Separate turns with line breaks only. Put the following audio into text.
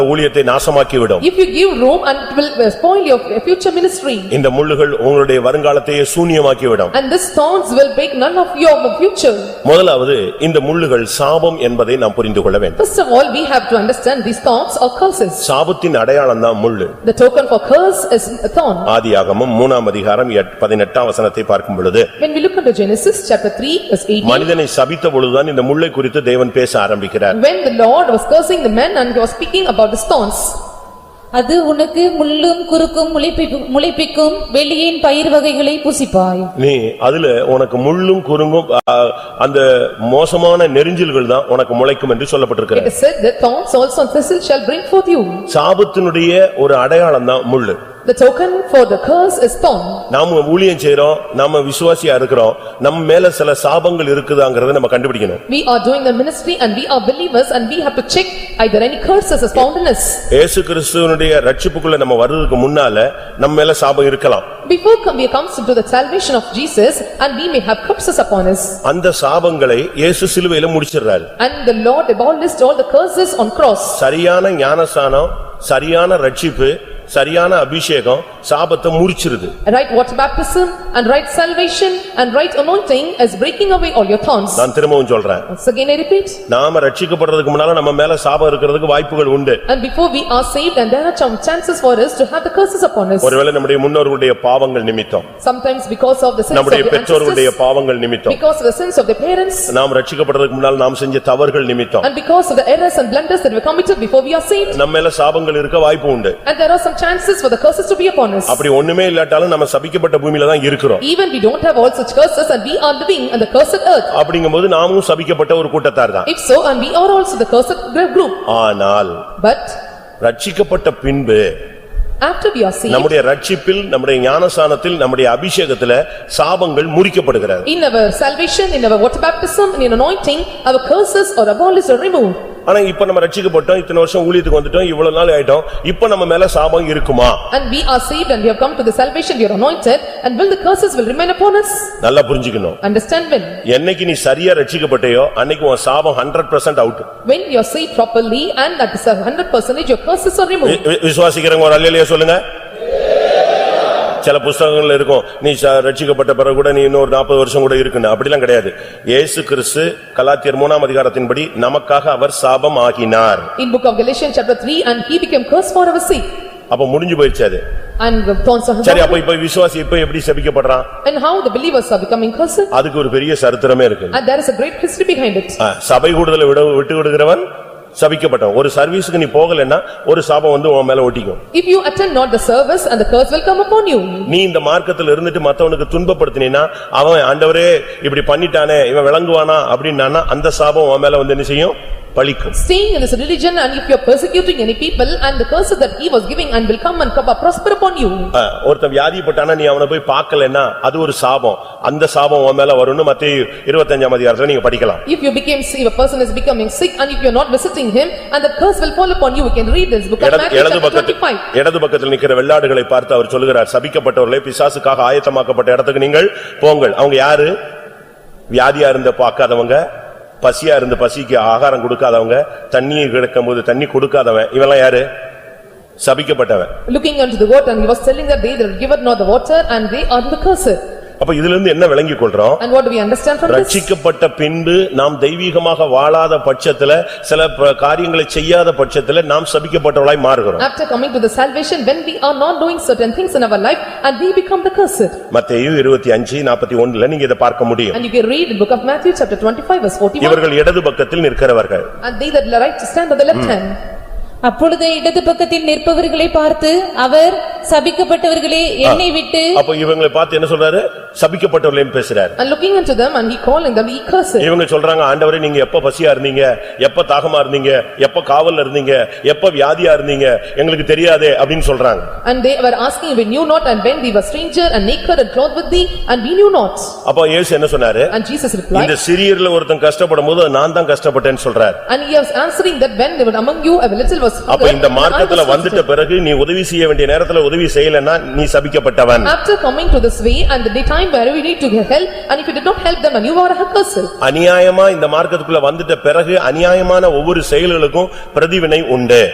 ஊழியத்தை நாசமாக்கிவிடும்
If you give room and it will uh, spoil your future ministry
இந்த முள்ளுகள் உங்களுடைய வருங்காலத்தையே சூனியமாக்கிவிடும்
and these thorns will break none of your future.
முதலாவது இந்த முள்ளுகள் சாபம் என்பதை நாம் புரிந்து கொள்ள வேண்டும்
First of all, we have to understand these thorns or curses.
சாபத்தின் அடையாளம் தான் முள்ளு
The token for curse is a thorn.
ஆதியாகமம் மூணாம் அதிகாரம் எட்- பதினெட்டாம் வசனத்தை பார்க்கும் பொழுது
When we look into Genesis chapter 3 verse 18,
மனிதனை சபித்த பொழுதுதான் இந்த முள்ளை குறித்து தேவன் பேச ஆரம்பிக்கிறார்
when the Lord was cursing the man and he was speaking about the thorns.
அது உனக்கு முள்ளும் குறுக்கும் முளைப்பிக்கும் முளைப்பிக்கும் வெளியின் பயிர் வகைகளை புசிப்பாய்
நீ அதுல உனக்கு முள்ளும் குறுங்கும் ஆ, அந்த மோசமான நெரிஞ்சில்கள் தான் உனக்கு முளைக்கும் என்று சொல்லப்பட்டிருக்கிறது
It is said that thorns also and thistles shall bring forth you.
சாபத்தினுடைய ஒரு அடையாளம் தான் முள்ளு
The token for the curse is thorn.
நாம ஊழியம் செய்றோம் நாம விசுவாசியா இருக்கிறோம் நம்ம மேல சில சாபங்கள் இருக்குதாங்கறத நம்ம கண்டுபிடிக்கணும்
We are doing the ministry and we are believers and we have to check either any curses is found in us.
ஏசு கிறிஸ்துவனுடைய ரட்சிப்புக்குள்ள நம்ம வர்றதுக்கு முன்னால நம்ம மேல சாபம் இருக்கலாம்
Before come- we comes into the salvation of Jesus and we may have curses upon us.
அந்த சாபங்களை இயேசு சிலுவையில முடிச்சிடுறாரு
And the Lord abolished all the curses on cross.
சரியான ஞானசானம் சரியான ரட்சிப்பு சரியான அபிஷேகம் சாபத்தை முடிச்சிருது
Right water baptism and right salvation and right anointing is breaking away all your thorns.
நான் திரும்பவும் சொல்றேன்
Once again I repeat,
நாம ரட்சிக்கப்படுறதுக்கு முன்னால நம்ம மேல சாபம் இருக்கிறதுக்கு வாய்ப்புகள் உண்டு
and before we are saved and there are some chances for us to have the curses upon us.
ஒருவேளை நம்முடைய முன்னோர்களுடைய பாவங்கள் நிமித்தம்
Sometimes because of the sins of
நம்முடைய
the
பெற்றோர்களுடைய
ancestors,
பாவங்கள் நிமித்தம்
because of the sins of the parents,
நாம் ரட்சிக்கப்படுறதுக்கு முன்னால் நாம் செஞ்ச தவறுகள் நிமித்தம்
and because of the errors and blunders that were committed before we are saved.
நம்ம மேல சாபங்கள் இருக்க வாய்ப்பு உண்டு
And there are some chances for the curses to be upon us.
அப்படி ஒண்ணுமே இல்லாட்டாலும் நம்ம சபிக்கப்பட்ட பூமியில தான் இருக்கிறோம்
Even we don't have all such curses and we are living on the cursed earth.
அப்படிங்கும்போது நாமும் சபிக்கப்பட்ட ஒரு கூட்டத்தார் தான்
If so, and we are also the cursed group.
ஆனால்
But
ரட்சிக்கப்பட்ட பின்பு
after we are saved,
நம்முடைய ரட்சிப்பில் நம்முடைய ஞானசானத்தில் நம்முடைய அபிஷேகத்துல சாபங்கள் முறிக்கப்படுகிறது
in our salvation, in our water baptism, and in anointing, our curses are abolished or removed.
ஆனா இப்ப நம்ம ரட்சிக்கப்பட்டோம் இத்தனை வருஷம் ஊழியத்துக்கு வந்துட்டோம் இவ்வளவு நாள் ஆயிட்டோம் இப்ப நம்ம மேல சாபம் இருக்குமா
And we are saved and we have come to the salvation, we are anointed, and will the curses will remain upon us?
நல்லா புரிஞ்சுக்கணும்
Understand when?
என்னைக்கு நீ சரியா ரட்சிக்கப்பட்டயோ அன்னைக்கு உன் சாபம் hundred percent out
When you are saved properly and that is a hundred percentage, your curses are removed.
வி- விசுவாசிக்கிறவங்க ஒரு அல்லையா சொல்லுங்க சில புஸ்தகங்கள்ல இருக்கும் நீ ச- ரட்சிக்கப்பட்ட பிறகு கூட நீ இன்னொரு நாற்பது வருஷம் கூட இருக்குன்னு அப்படிலாம் கிடையாது இயேசு கிறிஸ்து கலாத்தியர் மூணாம் அதிகாரத்தின்படி நமக்காக அவர் சாபம் ஆகினார்
In book of Galatians chapter 3, and he became cursed for our sake.
அப்ப முடிஞ்சு போயிருச்சு அது
And the thorns are.
சரி அப்ப இப்ப விசுவாசி இப்ப எப்படி சபிக்கப்படுறான்
And how the believers are becoming cursed?
அதுக்கு ஒரு பெரிய சரித்திரமே இருக்கு
And there is a great history behind it.
ஆ, சபை கூடுதலை விட விட்டு விடுகிறவன் சபிக்கப்பட்டவன் ஒரு சர்வீஸ்க்கு நீ போகலைன்னா ஒரு சாபம் வந்து உன் மேல ஒட்டிக்கும்
If you attend not the service and the curse will come upon you.
நீ இந்த மார்க்கத்துல இருந்துட்டு மத்தவனுக்கு துன்பப்படுத்தினா அவன் ஆண்டவரே இப்படி பண்ணிட்டானே இவன் விளங்குவானா அப்படின்னானா அந்த சாபம் உன் மேல வந்து என்ன செய்யும் பலிக்கும்
Staying in this religion and if you are persecuting any people and the curses that he was giving and will come and come up prosper upon you.
ஆ, ஒருத்தன் வியாதிப்பட்டானா நீ அவனை போய் பார்க்கலைன்னா அது ஒரு சாபம் அந்த சாபம் உன் மேல வரும்னு மத்திய இருபத்தஞ்சாம் அதிகாரத்துல நீங்க படிக்கலாம்
If you became, if a person is becoming sick and if you are not visiting him and the curse will fall upon you, we can read this book of
இடது-
Matthew
இடது
chapter
பக்கத்து
twenty-five.
இடது பக்கத்தில் நிக்கிற வெள்ளாடுகளை பார்த்து அவர் சொல்லுகிறார் சபிக்கப்பட்டவர்களே பிசாசுக்காக ஆயத்தமாக்கப்பட்ட இடத்துக்கு நீங்கள் போங்கள் அவங்க யாரு வியாதியா இருந்த பார்க்காதவங்க பசியா இருந்து பசிக்கு ஆகாரம் கொடுக்காதவங்க தண்ணி கிடக்கும்போது தண்ணி கொடுக்காதவன் இவெல்லாம் யாரு சபிக்கப்பட்டவன்
Looking unto the water and he was telling that they that give it not the water and they are the cursed.
அப்ப இதுல இருந்து என்ன விளங்கிக் கொள்றோம்
And what do we understand from this?
ரட்சிக்கப்பட்ட பின்பு நாம் தெய்வீகமாக வாழாத பட்சத்துல சில ப- காரியங்களை செய்யாத பட்சத்துல நாம் சபிக்கப்பட்டவளாய் மாறுகிறோம்
After coming to the salvation, when we are not doing certain things in our life and we become the cursed.
மத்தேயு இருபத்தி அஞ்சு நாற்பத்தி ஒண்ணுல நீங்க இதை பார்க்க முடியும்
And you can read in book of Matthew chapter twenty-five verse forty-one.
இவர்கள் இடது பக்கத்தில் நிற்கிறவர்கள்
And they that right stand on the left hand.
அப்பொழுது இடது பக்கத்தில் நிற்பவர்களை பார்த்து அவர் சபிக்கப்பட்டவர்களே என்னை விட்டு
அப்ப இவங்களை பார்த்து என்ன சொல்றாரு சபிக்கப்பட்டவர்களையும் பேசுறாரு
And looking unto them and he calling them, he cursed.
இவங்க சொல்றாங்க ஆண்டவரே நீங்க எப்ப பசியா இருந்தீங்க எப்ப தாகமா இருந்தீங்க எப்ப காவல்ல இருந்தீங்க எப்ப வியாதியா இருந்தீங்க எங்களுக்கு தெரியாதே அப்படின்னு சொல்றாங்க
And they were asking, we knew not and when we were stranger and naked and clothed with thee and we knew not.
அப்ப இயேசு என்ன சொன்னாரு
And Jesus
இந்த
replied,
சிறியர்ல ஒருத்தன் கஷ்டப்படும் போது "அது நான் தான் கஷ்டப்பட்டேன்னு சொல்றாரு
and he was answering that when they were among you, a little was
அப்ப
hunger,
இந்த
and I
மார்க்கத்துல
was thirsty."
வந்துட்ட பிறகு நீ உதவி செய்ய வேண்டிய நேரத்துல உதவி செய்யலைன்னா நீ சபிக்கப்பட்டவன்
After coming to this way and the time where we need to get help and if you did not help them and you are a cursed.
அநியாயமா இந்த மார்க்கத்துக்குள்ள வந்துட்ட பிறகு அநியாயமான ஒவ்வொரு செயல்களுக்கும் பிரதிவினை உண்டு